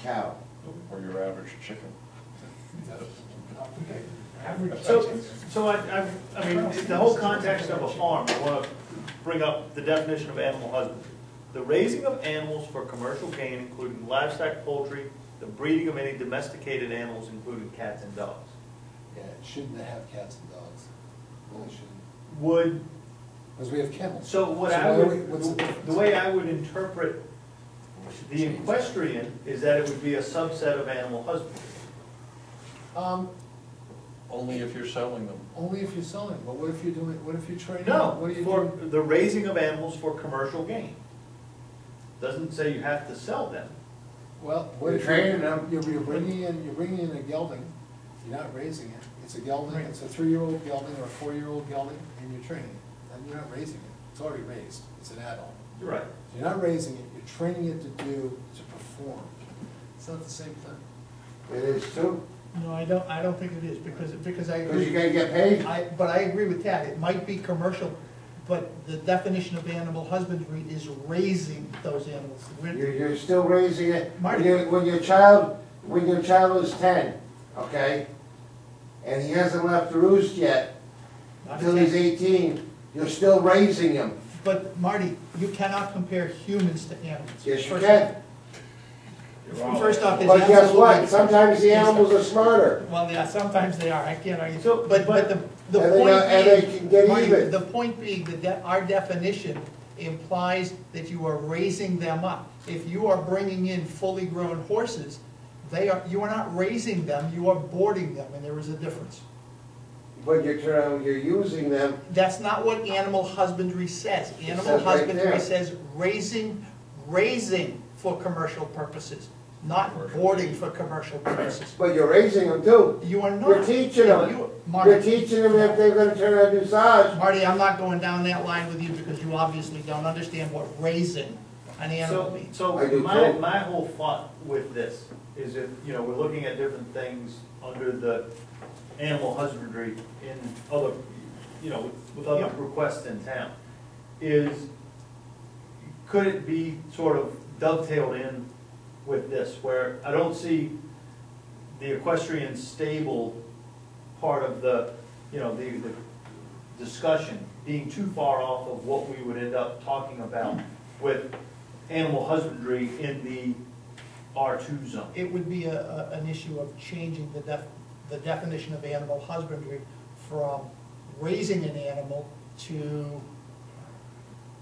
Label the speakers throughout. Speaker 1: cow.
Speaker 2: or your average chicken.
Speaker 3: So, so I, I, I mean, the whole context of a farm, I wanna bring up the definition of animal husbandry. The raising of animals for commercial gain, including livestock, poultry, the breeding of any domesticated animals, including cats and dogs.
Speaker 4: Yeah, it shouldn't have cats and dogs. Really shouldn't.
Speaker 3: Would,
Speaker 4: Because we have kennels.
Speaker 3: so what I
Speaker 4: why are we-
Speaker 3: would,
Speaker 4: what's the difference?
Speaker 3: the way I would interpret the equestrian is that it would be a subset of animal husbandry.
Speaker 4: Um,
Speaker 2: Only if you're selling them.
Speaker 4: only if you're selling, but what if you're doing, what if you're training? What
Speaker 3: No,
Speaker 4: are you
Speaker 3: for
Speaker 4: doing?
Speaker 3: the raising of animals for commercial gain. Doesn't say you have to sell them.
Speaker 4: Well, what
Speaker 1: You're
Speaker 4: if
Speaker 1: training
Speaker 4: you're,
Speaker 1: them.
Speaker 4: you're you're bringing in, you're bringing in a gelding, you're not raising it. It's a gelding, it's a three-year-old gelding or a four-year-old gelding, and you're training it. And you're not raising it. It's already raised. It's an adult.
Speaker 3: You're right.
Speaker 4: You're not raising it, you're training it to do, to perform. It's not the same thing.
Speaker 1: It is too,
Speaker 5: No, I don't, I don't think it is, because, because I
Speaker 1: because you
Speaker 5: agree,
Speaker 1: gotta get paid.
Speaker 5: I, but I agree with that, it might be commercial, but the definition of animal husbandry is raising those animals. We're-
Speaker 1: You're, you're still raising it. When
Speaker 5: Marty.
Speaker 1: your, when your child, when your child is ten, okay? And he hasn't left the roost yet,
Speaker 5: not
Speaker 1: until he's
Speaker 5: exactly-
Speaker 1: eighteen, you're still raising him.
Speaker 5: But Marty, you cannot compare humans to animals.
Speaker 1: Yes, you
Speaker 5: First-
Speaker 1: can.
Speaker 5: First off, it's
Speaker 1: But guess what?
Speaker 5: absolutely.
Speaker 1: Sometimes the animals are smarter.
Speaker 5: Well, yeah, sometimes they are, I can't argue,
Speaker 3: So,
Speaker 5: but, but
Speaker 3: but-
Speaker 5: the, the
Speaker 1: And they
Speaker 5: point
Speaker 1: are- and they can get
Speaker 5: being, Marty,
Speaker 1: even.
Speaker 5: the point being that de- our definition implies that you are raising them up. If you are bringing in fully grown horses, they are, you are not raising them, you are boarding them, and there is a difference.
Speaker 1: But you're trying, you're using them,
Speaker 5: That's not what animal husbandry says. Animal
Speaker 1: says right there.
Speaker 5: husbandry says raising, raising for commercial purposes, not
Speaker 2: Commercial.
Speaker 5: boarding for commercial purposes.
Speaker 1: but you're raising them too.
Speaker 5: You are not.
Speaker 1: You're teaching them.
Speaker 5: You- Marty.
Speaker 1: You're teaching them if they're gonna turn out dressage.
Speaker 5: Marty, I'm not going down that line with you because you obviously don't understand what raising an animal
Speaker 3: So,
Speaker 5: means.
Speaker 1: I
Speaker 3: so
Speaker 1: do
Speaker 3: my,
Speaker 1: too.
Speaker 3: my whole thought with this is if, you know, we're looking at different things under the animal husbandry in other, you know, with- with other
Speaker 5: Yeah.
Speaker 3: requests in town, is, could it be sort of dovetailed in with this, where I don't see the equestrian stable part of the, you know, the, the discussion being too far off of what we would end up talking about with animal husbandry in the R two zone.
Speaker 5: It would be a, a- an issue of changing the def, the definition of animal husbandry from raising an animal to,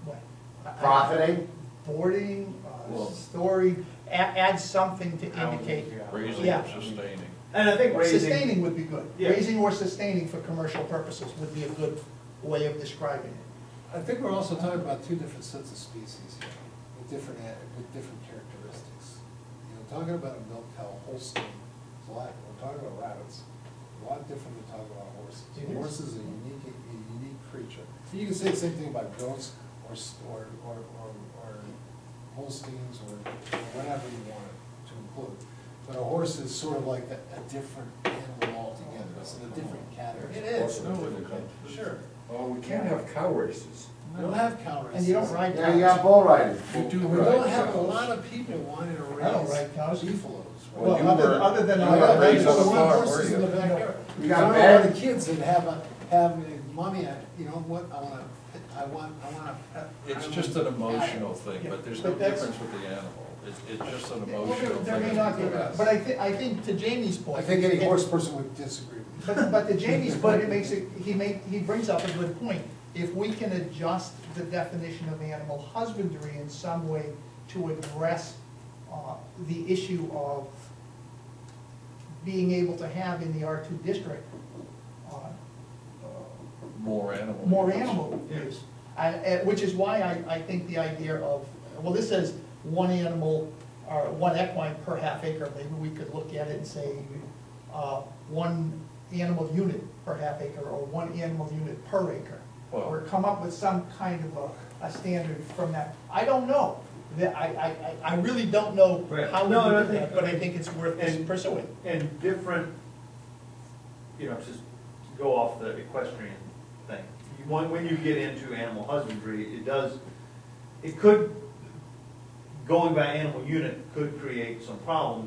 Speaker 5: what? I- I-
Speaker 1: Profiting?
Speaker 5: Boarding,
Speaker 2: Well-
Speaker 5: uh, storing, a- add something to indicate.
Speaker 2: Raising
Speaker 5: Yeah.
Speaker 2: and sustaining.
Speaker 3: And I think raising,
Speaker 5: Sustaining would be good.
Speaker 3: Yeah.
Speaker 5: Raising or sustaining for commercial purposes would be a good way of describing it.
Speaker 4: I think we're also talking about two different sets of species here, with different, ad- with different characteristics. You know, talking about a milk cow, Holstein, it's a lot, we're talking about rabbits, a lot different than talking about horses.
Speaker 5: It is.
Speaker 4: Horses are unique, a unique creature. You can say the same thing about goats or, s- or, or, or or Holsteins or whatever you want to include. But a horse is sort of like a, a different animal altogether, it's in a different category.
Speaker 5: It is.
Speaker 4: No, Sure.
Speaker 6: Oh, we can't have cow races.
Speaker 4: We don't have cow races.
Speaker 5: And you don't ride
Speaker 1: Yeah, you got bull riding.
Speaker 6: We do
Speaker 4: We
Speaker 6: ride
Speaker 4: don't have a
Speaker 6: cows.
Speaker 4: lot of people wanting to
Speaker 5: I don't
Speaker 4: raise
Speaker 5: ride cows.
Speaker 4: beefaloes.
Speaker 6: Well,
Speaker 5: Well,
Speaker 6: you
Speaker 5: other-
Speaker 6: were-
Speaker 5: other than
Speaker 6: you
Speaker 5: I
Speaker 6: were
Speaker 5: got
Speaker 6: raised
Speaker 5: raised
Speaker 6: on a
Speaker 5: on
Speaker 6: farm, were
Speaker 4: Horses in the
Speaker 6: you?
Speaker 4: backyard.
Speaker 1: You got
Speaker 4: I don't
Speaker 1: bad-
Speaker 4: want the kids that have a, have, mommy, I, you know what, I wanna, pet- I want, I wanna. pet-
Speaker 2: It's
Speaker 4: I
Speaker 2: just an
Speaker 4: wanna-
Speaker 2: emotional thing, but there's no
Speaker 5: But that's-
Speaker 2: difference with the animal. It's, it's just an
Speaker 5: Well, there-
Speaker 2: emotional
Speaker 5: There may
Speaker 2: thing.
Speaker 5: not be,
Speaker 4: Yes.
Speaker 5: but I thi, I think to Jamie's point.
Speaker 4: I think any
Speaker 5: it-
Speaker 4: horse person would disagree with you.
Speaker 5: But, but to Jamie's point, it makes it, he make, he brings up a good point. If we can adjust the definition of animal husbandry in some way to address, uh, the issue of being able to have in the R two district, uh,
Speaker 2: More animal.
Speaker 5: more
Speaker 2: use.
Speaker 5: animal use. I- I- Which is why I, I think the idea of, well, this says one animal, or one equine per half acre, maybe we could look at it and say, uh, one animal unit per half acre, or one animal unit per acre. Or
Speaker 2: Well-
Speaker 5: come up with some kind of a, a standard from that. I don't know, That- I, I, I I really don't know
Speaker 3: Right.
Speaker 5: how we
Speaker 3: No, no, I
Speaker 5: would do
Speaker 3: think-
Speaker 5: that, but I think it's worth
Speaker 3: And-
Speaker 5: pursuing.
Speaker 3: and different, you know, just to go off the equestrian thing. You- When, when you get into animal husbandry, it does, it could, going by animal unit could create some problems